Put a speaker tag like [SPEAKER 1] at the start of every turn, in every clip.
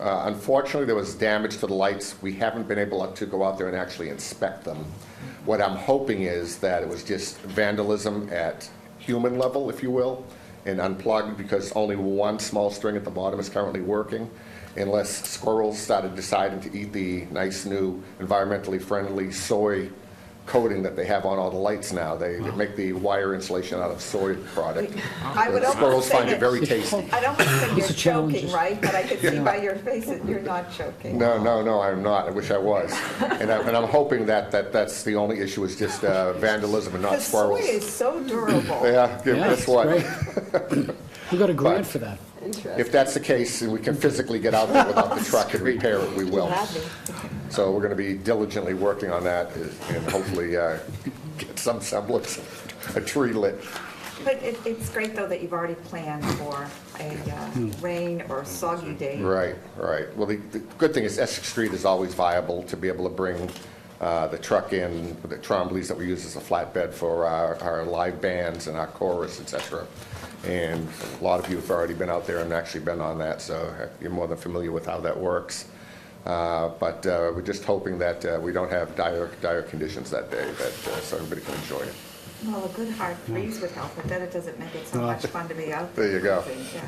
[SPEAKER 1] Uh, Unfortunately, there was damage to the lights. We haven't been able to go out there and actually inspect them. What I'm hoping is that it was just vandalism at human level, if you will, and unplugged because only one small string at the bottom is currently working. Unless squirrels started deciding to eat the nice new environmentally friendly soy coating that they have on all the lights now. They they make the wire insulation out of soy product.
[SPEAKER 2] I would
[SPEAKER 1] And Squirrels
[SPEAKER 2] almost say
[SPEAKER 1] find it
[SPEAKER 2] that,
[SPEAKER 1] very tasty.
[SPEAKER 2] I don't think you're
[SPEAKER 3] It's a challenge,
[SPEAKER 2] joking,
[SPEAKER 3] isn't it?
[SPEAKER 2] right? But I can see by your face that you're not joking.
[SPEAKER 1] No, no, no, I'm not. I wish I was. And I'm, and I'm hoping that, that that's the only issue is just uh, vandalism and not
[SPEAKER 2] The soy
[SPEAKER 1] squirrels.
[SPEAKER 2] is so durable.
[SPEAKER 1] Yeah, yeah,
[SPEAKER 3] Yeah,
[SPEAKER 1] that's
[SPEAKER 3] it's
[SPEAKER 1] what.
[SPEAKER 3] great. We got a grant
[SPEAKER 1] But-
[SPEAKER 3] for that.
[SPEAKER 1] If that's the case, and we can physically get out there without the truck and repair it, we will.
[SPEAKER 2] Gladly.
[SPEAKER 1] So we're going to be diligently working on that and hopefully uh, get some semblance of a tree lit.
[SPEAKER 2] But it, it's great, though, that you've already planned for a uh,
[SPEAKER 3] Hmm.
[SPEAKER 2] rain or soggy day.
[SPEAKER 1] Right, right. Well, the, the good thing is Essex Street is always viable to be able to bring uh, the truck in, the Tromblies that we use as a flatbed for our, our live bands and our chorus, et cetera. And a lot of you have already been out there and actually been on that, so you're more than familiar with how that works. Uh, But uh, we're just hoping that uh, we don't have dire, dire conditions that day, that, uh, so everybody can enjoy it.
[SPEAKER 2] Well, a good hard
[SPEAKER 3] Hmm.
[SPEAKER 2] freeze would help, but then it doesn't make it so much fun to be out there.
[SPEAKER 1] There you go.
[SPEAKER 2] Yeah,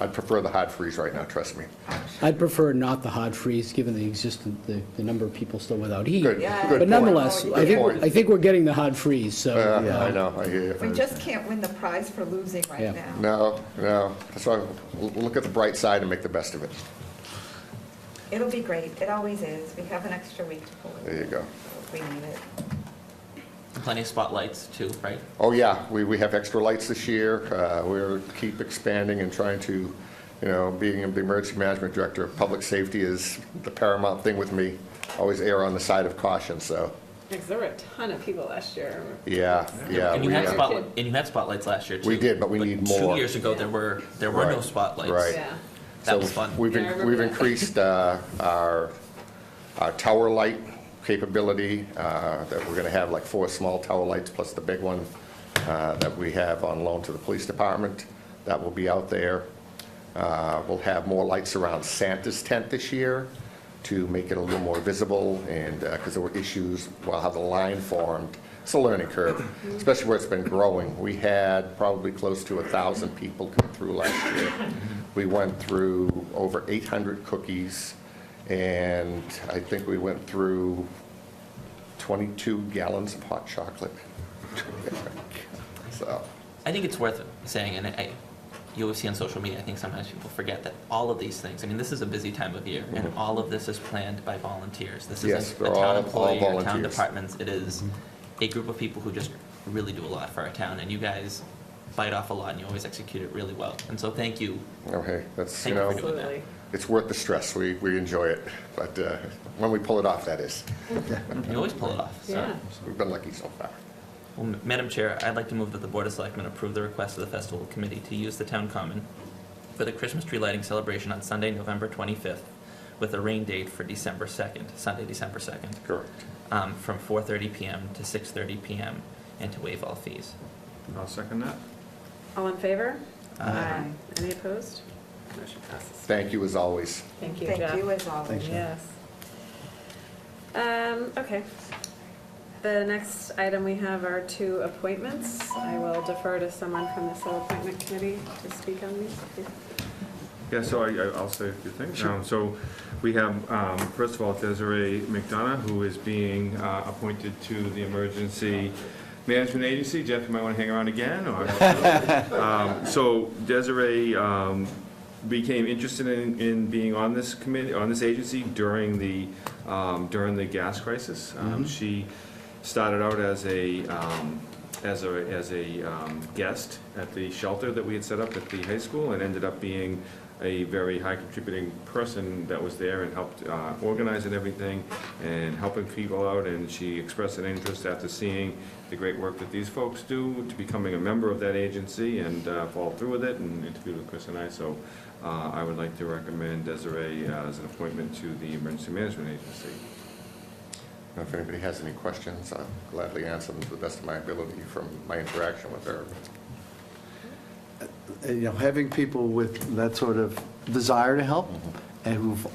[SPEAKER 1] I'd prefer the hard freeze right now, trust me.
[SPEAKER 2] I'm sure.
[SPEAKER 3] I'd prefer not the hard freeze, given the existent, the, the number of people still without heat.
[SPEAKER 1] Good,
[SPEAKER 2] Yeah.
[SPEAKER 1] good
[SPEAKER 3] But
[SPEAKER 1] point.
[SPEAKER 3] nonetheless,
[SPEAKER 2] Good
[SPEAKER 3] I think,
[SPEAKER 1] point.
[SPEAKER 3] I think we're getting the hard freeze, so.
[SPEAKER 1] Yeah,
[SPEAKER 3] uh,
[SPEAKER 1] I know, I hear you.
[SPEAKER 2] We just can't win the prize for losing
[SPEAKER 3] Yeah.
[SPEAKER 2] right now.
[SPEAKER 1] No, no. So look at the bright side and make the best of it.
[SPEAKER 2] It'll be great. It always is. We have an extra week to pull
[SPEAKER 1] There you
[SPEAKER 2] it.
[SPEAKER 1] go.
[SPEAKER 2] We need it.
[SPEAKER 4] Plenty of spotlights too, right?
[SPEAKER 1] Oh, yeah, we, we have extra lights this year. Uh, We're keep expanding and trying to, you know, being the emergency management director, public safety is the paramount thing with me. Always err on the side of caution, so,
[SPEAKER 5] Because there were a ton of people last year.
[SPEAKER 1] yeah, yeah.
[SPEAKER 4] And you
[SPEAKER 1] we,
[SPEAKER 4] had
[SPEAKER 1] uh,
[SPEAKER 5] spot-
[SPEAKER 4] spotlight, and you had spotlights last year too.
[SPEAKER 1] We did, but we need more.
[SPEAKER 4] Two years ago, there were, there were no
[SPEAKER 1] Right,
[SPEAKER 4] spotlights.
[SPEAKER 1] right.
[SPEAKER 5] Yeah.
[SPEAKER 4] That
[SPEAKER 1] so
[SPEAKER 4] was fun.
[SPEAKER 1] We've,
[SPEAKER 5] Yeah, I
[SPEAKER 1] in-
[SPEAKER 5] remember
[SPEAKER 1] we've
[SPEAKER 5] that.
[SPEAKER 1] increased uh, our, our tower light capability, uh, that we're going to have like four small tower lights plus the big one uh, that we have on loan to the police department. That will be out there. Uh, We'll have more lights around Santa's tent this year to make it a little more visible and, because there were issues while how the line formed. It's a learning curve, especially where it's been growing. We had probably close to a 1,000 people come through last year. We went through over 800 cookies, and I think we went through 22 gallons of hot chocolate. So,
[SPEAKER 4] I think it's worth saying, and I, you always see on social media, I think sometimes people forget that all of these things, I mean, this is a busy time of year, and all of this is planned by volunteers. This
[SPEAKER 1] Mm-hmm. Yes,
[SPEAKER 4] isn't
[SPEAKER 1] they're
[SPEAKER 4] a
[SPEAKER 1] all- all
[SPEAKER 4] town employee or town
[SPEAKER 1] volunteers. Mm-hmm.
[SPEAKER 4] departments. It is a group of people who just really do a lot for our town, and you guys bite off a lot, and you always execute it really well. And so thank you.
[SPEAKER 1] okay, oh, that's, you
[SPEAKER 4] Thank you
[SPEAKER 1] know.
[SPEAKER 4] for doing that.
[SPEAKER 5] Absolutely.
[SPEAKER 1] It's worth the stress. We, we enjoy it, but uh, when we pull it off, that is.
[SPEAKER 4] You always pull it off, so.
[SPEAKER 5] Yeah.
[SPEAKER 1] We've been lucky so far.
[SPEAKER 4] Well, M- Madam Chair, I'd like to move that the Board of Selectmen approve the request of the Festival Committee to use the Town Common for the Christmas tree lighting celebration on Sunday, November 25th, with a rain date for December 2nd, Sunday, December 2nd,
[SPEAKER 1] Correct.
[SPEAKER 4] um, from 4:30 PM to 6:30 PM, and to waive all fees.
[SPEAKER 6] I'll second that.
[SPEAKER 5] All in favor?
[SPEAKER 4] Aye.
[SPEAKER 5] Any opposed? Motion passes.
[SPEAKER 1] Thank you as always.
[SPEAKER 5] Thank you, Jeff.
[SPEAKER 2] Thank you as always.
[SPEAKER 3] Thanks, Jeff.
[SPEAKER 5] Yes. Um, okay. The next item we have are two appointments. I will defer to someone from the Civil Appointment Committee to speak on these.
[SPEAKER 6] Yeah, so I, I- I'll say a few things. Um, So we have, um, first of all, Desiree McDonough, who is being uh, appointed to the Emergency Management Agency. Jeff, you might want to hang around again, or? Um, So Desiree um, became interested in, in being on this committee, on this agency during the, um, during the gas crisis. Um, She started out as a, um, as a, as a um, guest at the shelter that we had set up at the high school and ended up being a very high contributing person that was there and helped uh, organize and everything and helping people out. And she expressed an interest after seeing the great work that these folks do to becoming a member of that agency and uh, followed through with it and interviewed with Chris and I. So uh, I would like to recommend Desiree uh, as an appointment to the Emergency Management Agency.
[SPEAKER 1] Now, If anybody has any questions, I'll gladly answer them to the best of my ability from my interaction with her.
[SPEAKER 7] you know, having people with that sort of desire to help and who've